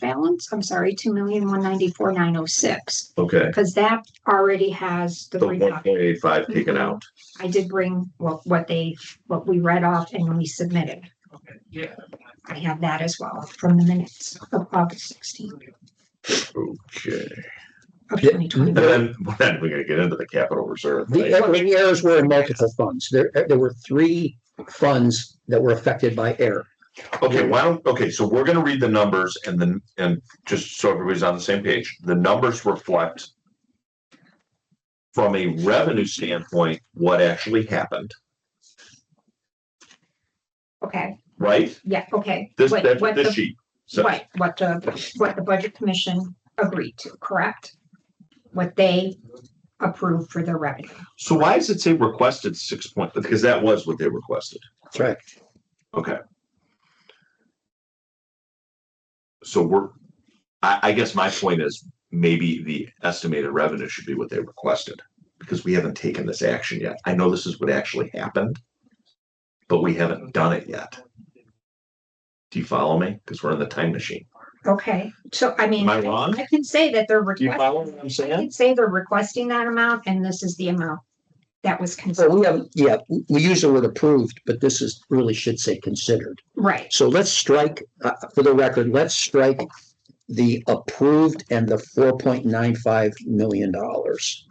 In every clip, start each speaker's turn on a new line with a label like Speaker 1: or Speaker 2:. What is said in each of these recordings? Speaker 1: balance, I'm sorry, two million, one ninety-four, nine oh six,
Speaker 2: Okay,
Speaker 1: because that already has the Mm-hmm.
Speaker 2: the one
Speaker 1: reduction.
Speaker 2: point eight five taken out.
Speaker 1: I did bring what, what they, what we read off and we submitted.
Speaker 3: Okay, yeah.
Speaker 1: I have that as well from the minutes of August sixteenth
Speaker 2: Okay.
Speaker 1: of
Speaker 4: Yeah.
Speaker 1: twenty
Speaker 2: And
Speaker 1: twenty.
Speaker 2: then, well, then we're gonna get into the capital reserve.
Speaker 4: The
Speaker 2: right?
Speaker 4: er- the errors were in multiple funds. There, uh, there were three funds that were affected by error.
Speaker 2: Okay, why don't, okay, so we're gonna read the numbers and then, and just so everybody's on the same page, the numbers reflect from a revenue standpoint, what actually happened,
Speaker 1: Okay,
Speaker 2: right?
Speaker 1: yeah, okay.
Speaker 2: This,
Speaker 1: What-
Speaker 2: that's
Speaker 1: what
Speaker 2: this
Speaker 1: the-
Speaker 2: sheet. So,
Speaker 1: Right, what the, what the budget commission agreed to, correct? What they approved for their revenue.
Speaker 2: so why does it say requested six point, because that was what they requested.
Speaker 4: That's right.
Speaker 2: Okay. So we're, I, I guess my point is maybe the estimated revenue should be what they requested. Because we haven't taken this action yet. I know this is what actually happened. But we haven't done it yet. Do you follow me? Because we're in the time machine.
Speaker 1: Okay, so I mean.
Speaker 2: Am I wrong?
Speaker 1: I can say that they're
Speaker 2: Do you follow
Speaker 1: requesting,
Speaker 2: what I'm
Speaker 1: I
Speaker 2: saying?
Speaker 1: can say they're requesting that amount and this is the amount that was
Speaker 4: So
Speaker 1: considered,
Speaker 4: we have, yeah, we use the word approved, but this is, really should say considered.
Speaker 1: right?
Speaker 4: So let's strike, uh, for the record, let's strike the approved and the four point nine five million dollars.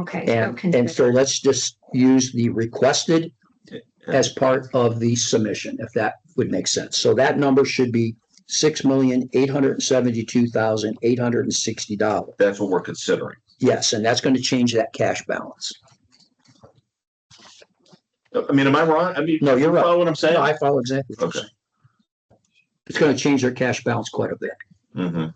Speaker 1: Okay. so
Speaker 4: And,
Speaker 1: consider-
Speaker 4: and so let's just use the requested as part of the submission, if that would make sense. So that number should be six million, eight hundred and seventy-two thousand, eight hundred and sixty dollars.
Speaker 2: That's what we're considering.
Speaker 4: Yes, and that's going to change that cash balance.
Speaker 2: I mean, am I wrong? I mean,
Speaker 4: No, you're
Speaker 2: you
Speaker 4: right.
Speaker 2: follow what I'm saying?
Speaker 4: No, I follow exactly. what you're
Speaker 2: Okay.
Speaker 4: saying. It's going to change their cash balance quite a bit.
Speaker 2: Mhm.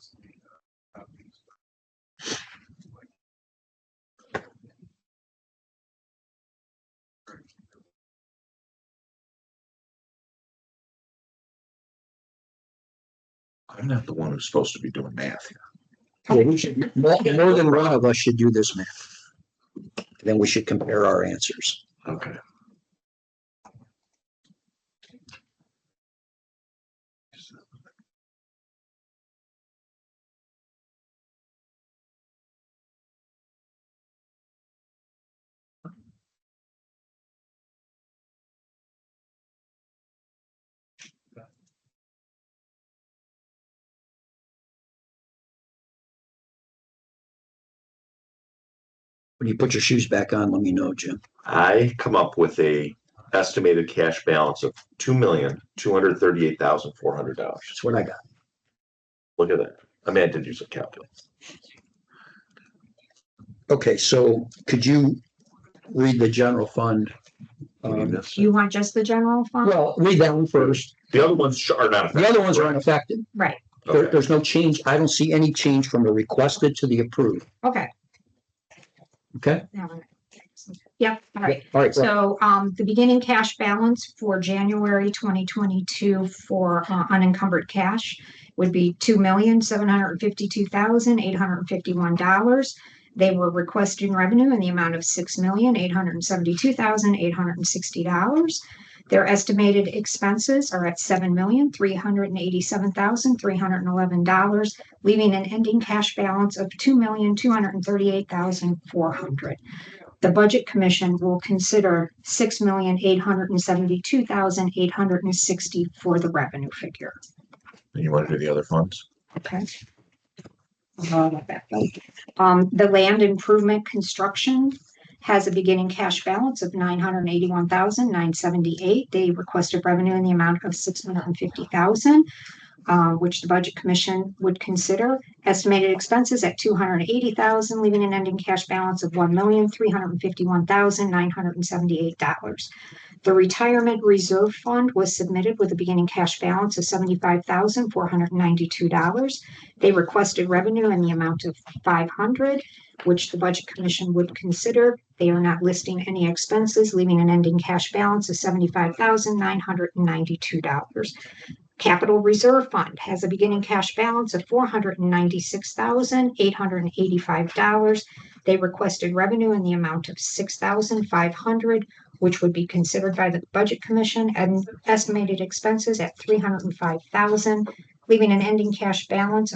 Speaker 2: I'm not the one who's supposed to be doing math here.
Speaker 4: Yeah, we should, more, more than one of us should do this math. Then we should compare our answers.
Speaker 2: Okay.
Speaker 4: When you put your shoes back on, let me know, Jim.
Speaker 2: I come up with a estimated cash balance of two million, two hundred thirty-eight thousand, four hundred dollars.
Speaker 4: That's what I got.
Speaker 2: Look at that. I mean, I did use a calculator.
Speaker 4: Okay, so could you read the general fund?
Speaker 2: We
Speaker 4: Um,
Speaker 2: missed
Speaker 1: Do
Speaker 2: it.
Speaker 1: you want just the general fund?
Speaker 4: Well, read that one first.
Speaker 2: The other ones are not.
Speaker 4: The other ones are
Speaker 2: affected,
Speaker 4: unaffected.
Speaker 1: Right,
Speaker 2: correct?
Speaker 4: There,
Speaker 2: Okay.
Speaker 4: there's no change. I don't see any change from the requested to the approved.
Speaker 1: okay.
Speaker 4: Okay?
Speaker 1: Now, Yep, all right.
Speaker 4: All right. go ahead.
Speaker 1: So um, the beginning cash balance for January twenty twenty-two for uh, unencumbered cash would be two million, seven hundred and fifty-two thousand, eight hundred and fifty-one dollars. They were requesting revenue in the amount of six million, eight hundred and seventy-two thousand, eight hundred and sixty dollars. Their estimated expenses are at seven million, three hundred and eighty-seven thousand, three hundred and eleven dollars, leaving an ending cash balance of two million, two hundred and thirty-eight thousand, four hundred the Budget Commission will consider six million eight hundred and seventy-two thousand eight hundred and sixty for the revenue figure.
Speaker 2: You want to do the other funds?
Speaker 1: Okay. Uh, let that go. Um, the land improvement construction has a beginning cash balance of nine hundred and eighty-one thousand, nine seventy-eight. They requested revenue in the amount of six hundred and fifty thousand, uh, which the Budget Commission would consider. Estimated expenses at two hundred and eighty thousand, leaving an ending cash balance of one million, three hundred and fifty-one thousand, nine hundred and seventy-eight dollars. The retirement reserve fund was submitted with a beginning cash balance of seventy-five thousand, four hundred and ninety-two dollars. They requested revenue in the amount of five hundred, which the Budget Commission would consider. They are not listing any expenses, leaving an ending cash balance of seventy-five thousand, nine hundred and ninety-two dollars. Capital Reserve Fund has a beginning cash balance of four hundred and ninety-six thousand, eight hundred and eighty-five dollars. They requested revenue in the amount of six thousand, five hundred, which would be considered by the Budget Commission and estimated expenses at three hundred and five thousand, leaving an ending cash balance